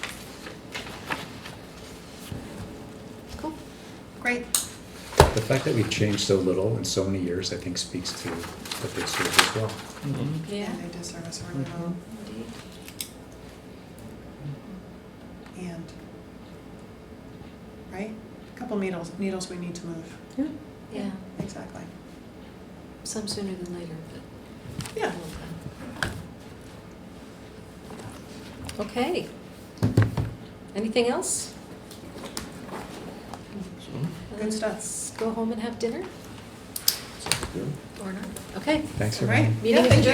Great. The fact that we've changed so little in so many years, I think speaks to what they serve as well. Yeah. Mm-hmm. They do serve us really well. Indeed. And, right? A Couple needles, needles we need to move. Yeah, Exactly. some sooner than later, but. Yeah. Okay. Anything else? Good stuff. Let's go home and have dinner, Sounds good. or not. Okay, Thanks, All right. everyone. meeting Yeah, thank adjourned. you.